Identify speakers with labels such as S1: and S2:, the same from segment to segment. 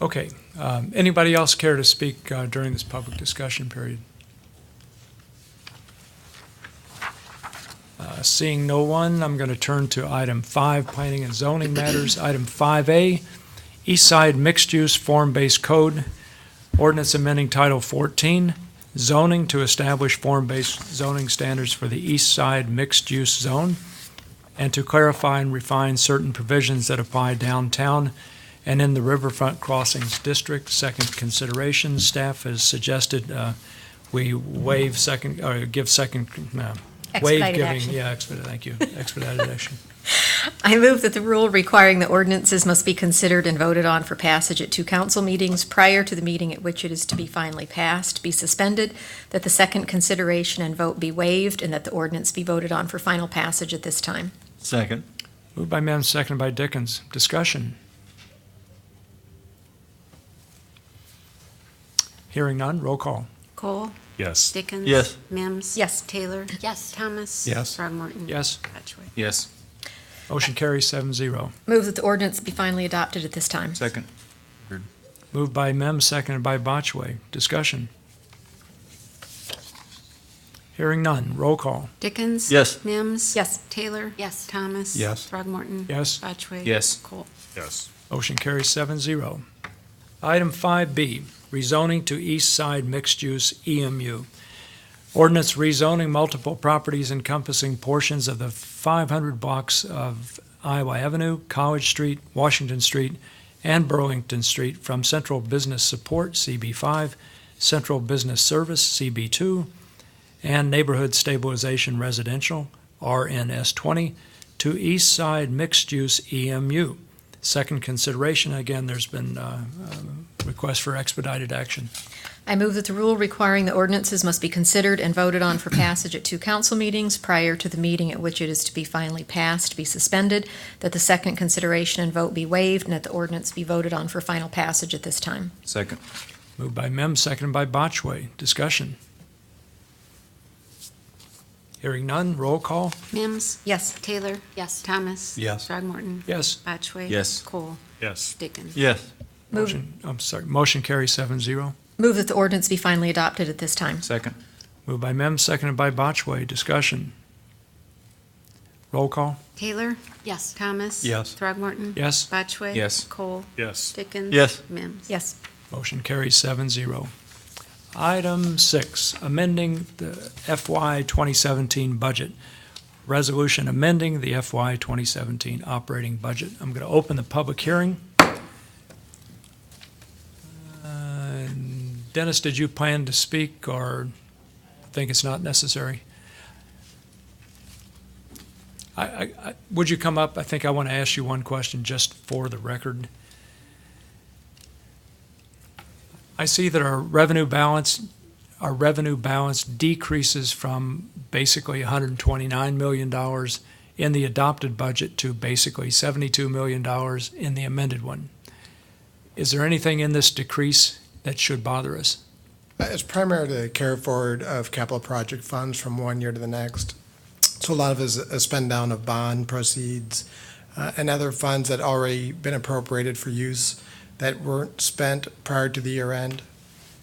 S1: Okay. Um, Anybody else care to speak uh, during this public discussion period? Uh, Seeing no one, I'm going to turn to item five, planning and zoning matters. Item 5A, East Side Mixed Use Form-Based Code, ordinance amending Title 14, zoning to establish form-based zoning standards for the East Side Mixed Use Zone, and to clarify and refine certain provisions that apply downtown and in the Riverfront Crossings District, second consideration, staff has suggested uh, we waive second, or give second, no. waive
S2: Expedited
S1: giving-
S2: action.
S1: Yeah, expedited, thank you, expedited action.
S2: I move that the rule requiring the ordinances must be considered and voted on for passage at two council meetings prior to the meeting at which it is to be finally passed be suspended, that the second consideration and vote be waived, and that the ordinance be voted on for final passage at this time.
S3: Second.
S1: Moved by Mims, seconded by Dickens. Discussion? Hearing none, roll call.
S4: Cole?
S5: Yes.
S4: Dickens?
S3: Yes.
S4: Mims?
S2: Yes.
S4: Taylor?
S6: Yes.
S4: Thomas?
S5: Yes.
S4: Throgmorton?
S1: Yes.
S4: Batchway?
S3: Yes.
S1: Motion carries seven zero.
S2: Move that the ordinance be finally adopted at this time.
S3: Second.
S1: Moved by Mims, seconded by Botchway. Discussion? Hearing none, roll call.
S4: Dickens?
S3: Yes.
S4: Mims?
S2: Yes.
S4: Taylor?
S6: Yes.
S4: Thomas?
S5: Yes.
S4: Throgmorton?
S1: Yes.
S4: Batchway?
S3: Yes.
S4: Cole?
S5: Yes.
S1: Motion carries seven zero. Item 5B, rezoning to east side mixed-use EMU. Ordinance rezoning multiple properties encompassing portions of the 500 blocks of Iowa Avenue, College Street, Washington Street, and Burlington Street from Central Business Support, CB5, Central Business Service, CB2, and Neighborhood Stabilization Residential, RNS20, to east side E mixed-use EMU. Second consideration, again, there's been uh, uh, request for expedited action.
S2: I move that the rule requiring the ordinances must be considered and voted on for passage at two council meetings prior to the meeting at which it is to be finally passed be suspended, that the second consideration and vote be waived, and that the ordinance be voted on for final passage at this time.
S3: Second.
S1: Moved by Mem, seconded by Botchway. Discussion. Hearing none, roll call.
S4: Mims?
S2: Yes.
S4: Taylor?
S6: Yes.
S4: Thomas?
S5: Yes.
S4: Throgmorton?
S1: Yes.
S4: Batchway?
S3: Yes.
S4: Cole?
S5: Yes.
S4: Dickens?
S3: Yes.
S2: Move-
S1: Motion, I'm sorry, motion carries seven zero.
S2: Move that the ordinance be finally adopted at this time.
S3: Second.
S1: Moved by Mem, seconded by Botchway. Discussion. Roll call.
S4: Taylor?
S6: Yes.
S4: Thomas?
S5: Yes.
S4: Throgmorton?
S1: Yes.
S4: Batchway?
S3: Yes.
S4: Cole?
S5: Yes.
S4: Dickens?
S3: Yes.
S4: Mims?
S2: Yes.
S1: Motion carries seven zero. Item six, amending the FY 2017 budget. Resolution amending the FY 2017 operating budget. I'm going to open the public hearing. Uh, Dennis, did you plan to speak or think it's not necessary? I- I, I, would you come up? I think I want to ask you one question just for the record. I see that our revenue balance, our revenue balance decreases from basically $129 million in the adopted budget to basically $72 million in the amended one. Is there anything in this decrease that should bother us?
S7: Uh, It's primarily a carry forward of capital project funds from one year to the next. So a lot of it is a spend down of bond proceeds uh, and other funds that already been appropriated for use that weren't spent prior to the year end.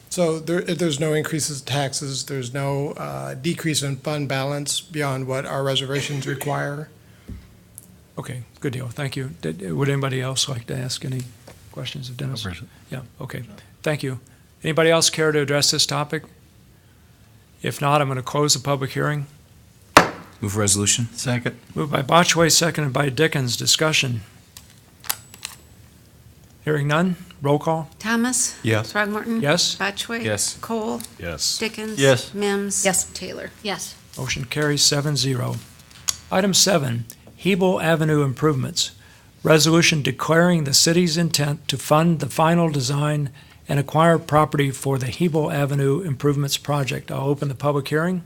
S7: So there, if there's no increases in taxes, there's no uh, decrease in fund balance beyond what our reservations require.
S1: Okay, good deal, thank you. Did- Would anybody else like to ask any questions of Dennis? Yeah, okay, thank you. Anybody else care to address this topic? If not, I'm going to close the public hearing.
S3: Move resolution. Second.
S1: Moved by Botchway, seconded by Dickens. Discussion. Hearing none. Roll call.
S4: Thomas?
S5: Yes.
S4: Throgmorton?
S1: Yes.
S4: Batchway?
S3: Yes.
S4: Cole?
S5: Yes.
S4: Dickens?
S3: Yes.
S4: Mims?
S2: Yes.
S4: Taylor?
S6: Yes.
S1: Motion carries seven zero. Item seven, Hebel Avenue Improvements. Resolution declaring the city's intent to fund the final design and acquire property for the Hebel Avenue Improvements Project. I'll open the public hearing.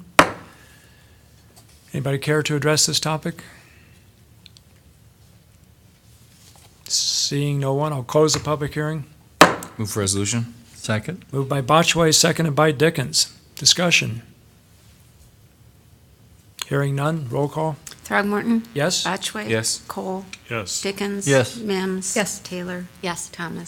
S1: Anybody care to address this topic? Seeing no one, I'll close the public hearing.
S3: Move resolution. Second.
S1: Moved by Botchway, seconded by Dickens. Discussion. Hearing none, roll call.
S4: Throgmorton?
S1: Yes?
S4: Batchway?
S3: Yes.
S4: Cole?
S5: Yes.
S4: Dickens?
S3: Yes.
S4: Mims?
S2: Yes.
S4: Taylor?
S6: Yes.
S4: Thomas?